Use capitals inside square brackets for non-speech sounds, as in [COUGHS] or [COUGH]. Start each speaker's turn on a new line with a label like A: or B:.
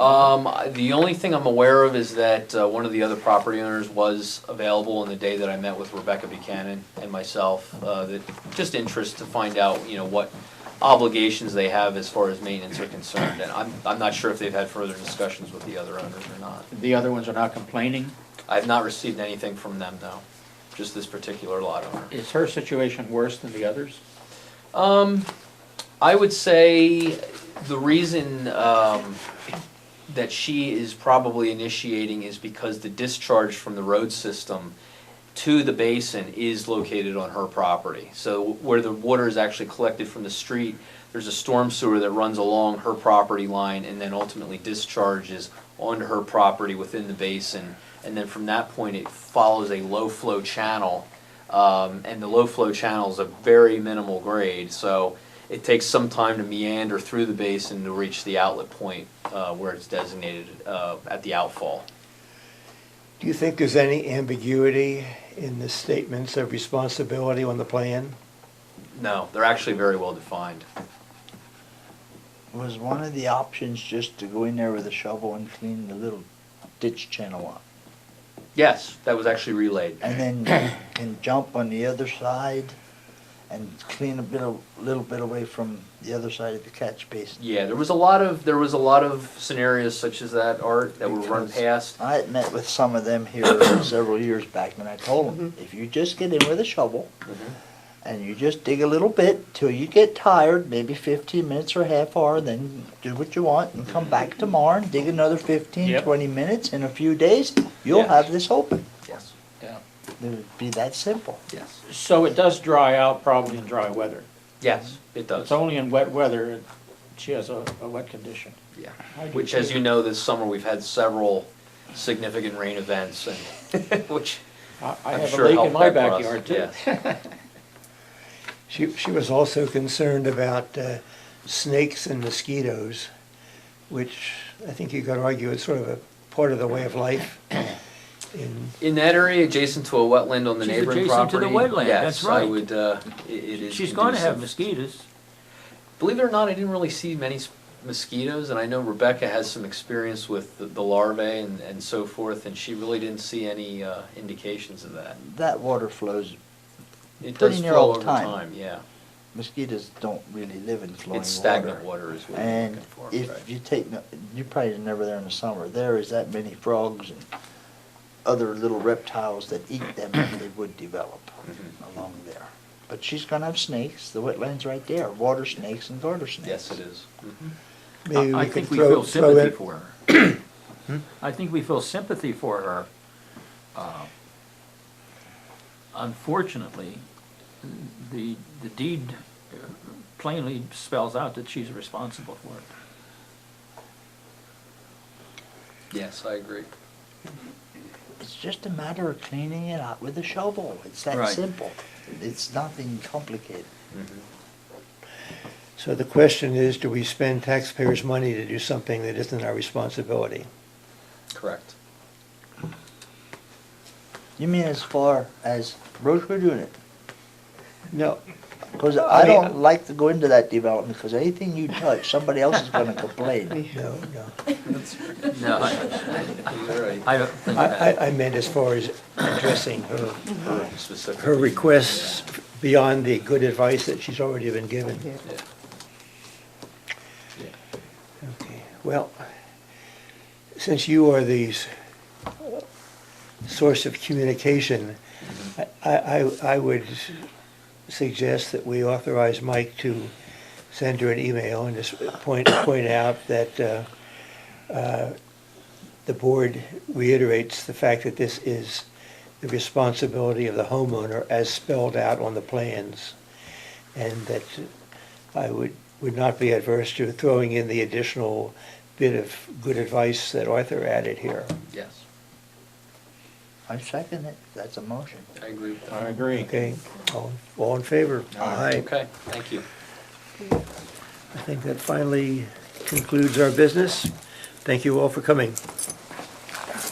A: Um, I- the only thing I'm aware of is that, uh, one of the other property owners was available on the day that I met with Rebecca Buchanan and myself, uh, that, just interest to find out, you know, what obligations they have as far as maintenance are concerned, and I'm, I'm not sure if they've had further discussions with the other owners or not.
B: The other ones are not complaining?
A: I've not received anything from them, though, just this particular lot owner.
B: Is her situation worse than the others?
A: Um, I would say the reason, um, that she is probably initiating is because the discharge from the road system to the basin is located on her property. So where the water is actually collected from the street, there's a storm sewer that runs along her property line and then ultimately discharges onto her property within the basin. And then from that point, it follows a low-flow channel. Um, and the low-flow channel is a very minimal grade, so it takes some time to meander through the basin to reach the outlet point uh, where it's designated uh, at the outfall.
C: Do you think there's any ambiguity in the statements of responsibility on the plan?
A: No, they're actually very well defined.
D: Was one of the options just to go in there with a shovel and clean the little ditch channel up?
A: Yes, that was actually relayed. [COUGHS]
D: And then you can jump on the other side and clean a bit of, little bit away from the other side of the catch basin?
A: Yeah, there was a lot of there was a lot of scenarios such as that art that were run
D: Because
A: past.
D: I had met with some of them here [COUGHS] several years back, and I told them,
A: Mm-hmm.
D: if you just get in with a shovel, and you just dig a little bit till you get tired, maybe fifteen minutes or half hour, then do what you want, and come back tomorrow and dig another 15, 20
B: Yep.
D: minutes, in a few days, you'll
A: Yes.
D: have this open.
A: Yes,
B: Yeah.
D: It would be that simple.
A: yes,
B: So it does dry out probably in dry weather.
A: yes, it does.
B: It's only in wet weather, she has a, a wet condition.
A: Yeah,
B: I do
A: which, as
B: too.
A: you know, this summer we've had several significant rain events, and [LAUGHS] which
B: I, I
A: I'm
B: have a
A: sure
B: lake in
A: helped
B: my
A: that for us,
B: backyard too. [LAUGHS]
A: yes.
C: She, she was also concerned about uh, snakes and mosquitoes, which I think you could argue is sort of a part of the way of life. in-
A: In that area, adjacent to a wetland on the
E: She's
A: neighboring
E: adjacent
A: property.
E: to the wetland, that's
A: Yes, I
E: right.
A: would, uh, i- it is.
E: She's gonna have
A: conducive.
E: mosquitoes.
A: Believe it or not, I didn't really see many s- mosquitoes, and I know Rebecca has some experience with the- the larvae and, and so forth, and she really didn't see any, uh, indications of that.
D: That water flows,
A: It
D: Pretty
A: does
D: near
A: flow
D: all the
A: over
D: time.
A: time, yeah.
D: mosquitoes don't really live in flowing water.
A: It's stagnant water is what you're
D: And
A: looking for, right?
D: if you take, no- you probably are never there in the summer, there is that many frogs and other little reptiles that eat them if they would develop
A: Mm-hmm.
D: along there. But she's gonna have snakes, the wetland's right there, water snakes and garter snakes.
A: Yes, it is. Mhm.
C: Maybe
E: I I
C: could
E: think we
C: throw-
E: feel
C: throw
E: sympathy
C: in-
E: for her.
C: [CLEARS THROAT] Hmm?
E: I think we feel sympathy for her. Uh, Unfortunately, the, the deed uh, plainly spells out that she's responsible for it.
A: Yes, I agree.
D: It's just a matter of cleaning it out with a shovel, it's that
E: Right.
D: simple. It's nothing complicated.
A: Mm-hmm.
C: So the question is, do we spend taxpayers' money to do something that isn't our responsibility?
A: Correct.
D: You mean as far as Rosewood unit?
C: No,
D: Because
C: I
D: I
C: mean, uh,
D: don't like to go into that development, because anything you touch, somebody else is gonna
C: [LAUGHS]
D: complain.
C: no, no.
E: No, I,
A: [LAUGHS] You're right.
E: I don't think
C: I,
E: that.
C: I- I meant as far as addressing her,
A: Mm-hmm. Specifically.
C: her requests beyond the good advice that she's already been given.
A: Yeah.
C: Okay, Well, since you are the s- source of communication, I, I, I would suggest that we authorize Mike to send her an email and just point, point out that uh, uh, the board reiterates the fact that this is the responsibility of the homeowner as spelled out on the plans. And that I would, would not be adverse to throwing in the additional bit of good advice that Arthur added here.
A: Yes,
D: I second it, that's a motion.
A: I agree with
B: I
A: that.
B: agree.
C: Okay, all, all in favor? Aye.
A: Okay, thank you.
C: I think that finally concludes our business. Thank you all for coming.